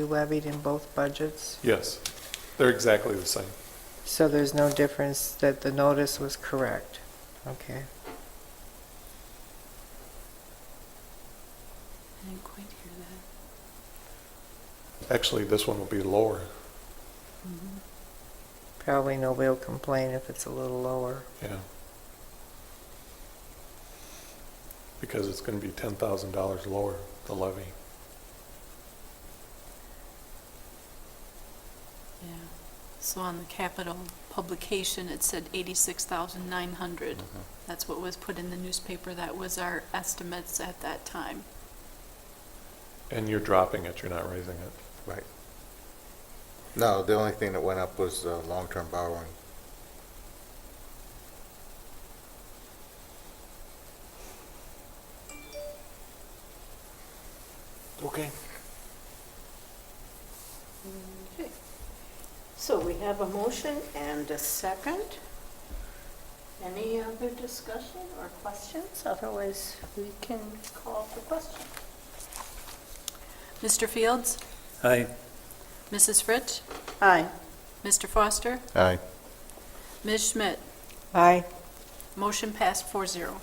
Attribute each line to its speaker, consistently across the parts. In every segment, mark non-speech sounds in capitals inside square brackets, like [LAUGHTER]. Speaker 1: be levied in both budgets?
Speaker 2: Yes, they're exactly the same.
Speaker 1: So there's no difference that the notice was correct? Okay.
Speaker 3: I didn't quite hear that.
Speaker 2: Actually, this one will be lower,
Speaker 1: Probably nobody will complain if it's a little lower.
Speaker 2: yeah. Because it's going to be $10,000 lower, the levy.
Speaker 3: Yeah. So on the capital publication, it said eighty-six thousand nine hundred. That's what was put in the newspaper. That was our estimates at that time.
Speaker 2: And you're dropping it, you're not raising it.
Speaker 4: Right. No, the only thing that went up was uh, long-term borrowing.
Speaker 2: Okay.
Speaker 5: Okay. So we have a motion and a second. Any other discussion or questions? Otherwise, we can call for question.
Speaker 3: Mr. Fields?
Speaker 6: Aye.
Speaker 3: Mrs. Fritsch?
Speaker 5: Aye.
Speaker 3: Mr. Foster?
Speaker 4: Aye.
Speaker 3: Ms. Schmidt?
Speaker 1: Aye.
Speaker 3: Motion passed four zero.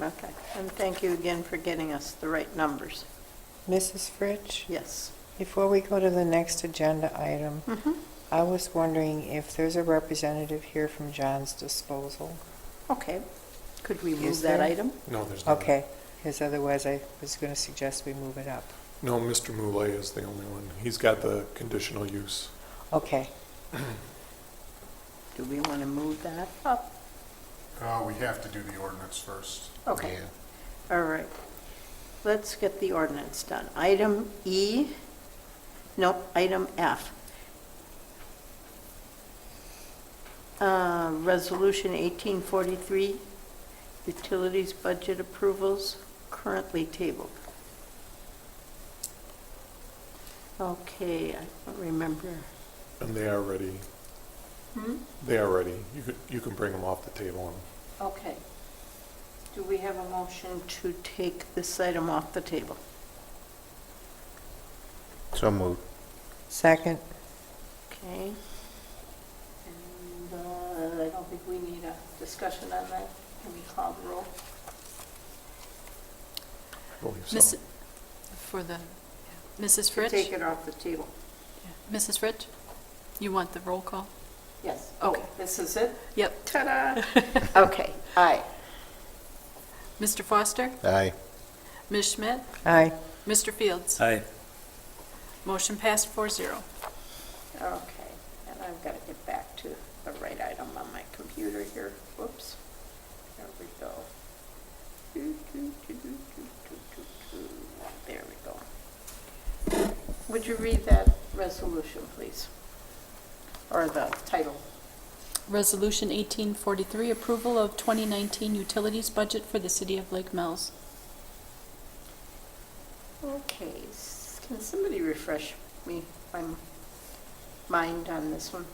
Speaker 5: Okay. And thank you again for getting us the right numbers.
Speaker 1: Mrs. Fritsch,
Speaker 5: Yes. Mm-hmm.
Speaker 1: before we go to the next agenda item, I was wondering if there's a representative here from John's Disposal?
Speaker 5: Okay. Could we
Speaker 1: Is
Speaker 5: move that
Speaker 1: there-
Speaker 5: item?
Speaker 2: No, there's not.
Speaker 1: Okay, because otherwise I was going to suggest we move it up.
Speaker 2: No, Mr. Moulet is the only one. He's got the conditional use.
Speaker 1: Okay,
Speaker 5: Do we want to move that up?
Speaker 7: Uh, we have to do the ordinance first.
Speaker 5: Okay.
Speaker 4: Yeah.
Speaker 5: All right. Let's get the ordinance done. Item E, nope, item F. Uh, Resolution 1843, utilities budget approvals currently tabled. Okay, I don't remember.
Speaker 2: And they are ready, they are ready. You could, you can bring them off the table. and-
Speaker 5: Okay. Do we have a motion to take this item off the table?
Speaker 4: So moved.
Speaker 1: second,
Speaker 5: Okay. And uh, I don't think we need a discussion on that. Can we call the roll?
Speaker 2: I believe so.
Speaker 3: Miss, for the, yeah. Mrs. Fritsch?
Speaker 5: Take it off the table.
Speaker 3: Yeah. Mrs. Fritsch? You want the roll call?
Speaker 5: Yes.
Speaker 3: Okay.
Speaker 5: This is it?
Speaker 3: Yep.
Speaker 5: Ta-da! Oh. [LAUGHS]
Speaker 3: [LAUGHS]
Speaker 5: Okay, aye.
Speaker 3: Mr. Foster?
Speaker 4: Aye.
Speaker 3: Ms. Schmidt?
Speaker 1: aye.
Speaker 3: Mr. Fields?
Speaker 6: Aye.
Speaker 3: Motion passed four zero.
Speaker 5: Okay, and I've got to get back to the right item on my computer here. Whoops. There we go. Doo, doo, doo, doo, doo, doo, doo, doo. There we go. Would you read that resolution, please? Or the title?
Speaker 3: Resolution 1843, approval of 2019 utilities budget for the city of Lake Mills.
Speaker 5: Okay, s- can somebody refresh me, my m- mind on this one?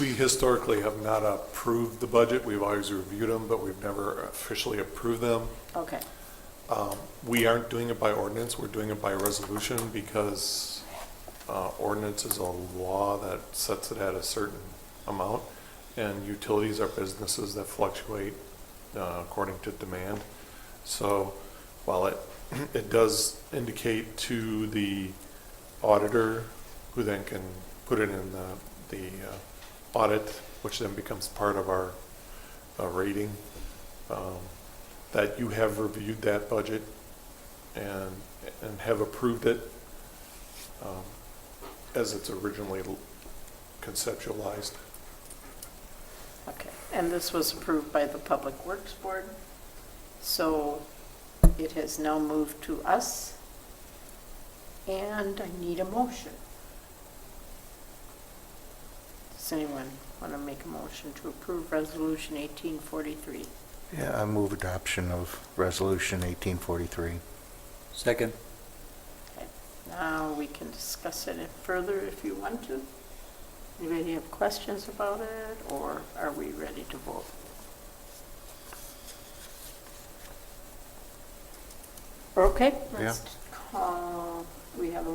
Speaker 2: We historically have not approved the budget. We've always reviewed them, but we've never officially approved them.
Speaker 5: Okay,
Speaker 2: Um, We aren't doing it by ordinance, we're doing it by resolution because uh, ordinance is a law that sets it at a certain amount, and utilities are businesses that fluctuate uh, according to demand. So while it, [CLEARS THROAT] it does indicate to the auditor, who then can put it in the, the uh, audit, which then becomes part of our uh, rating, um, that you have reviewed that budget and, and have approved it um, as it's originally l- conceptualized.
Speaker 5: okay. And this was approved by the Public Works Board, so it has now moved to us, and I need a motion. Does anyone want to make a motion to approve Resolution 1843?
Speaker 4: Yeah, I move adoption of Resolution 1843.
Speaker 6: Second.
Speaker 5: Now, we can discuss it further if you want to. Anybody have questions about it, or are we ready to vote? Okay, let's call we have a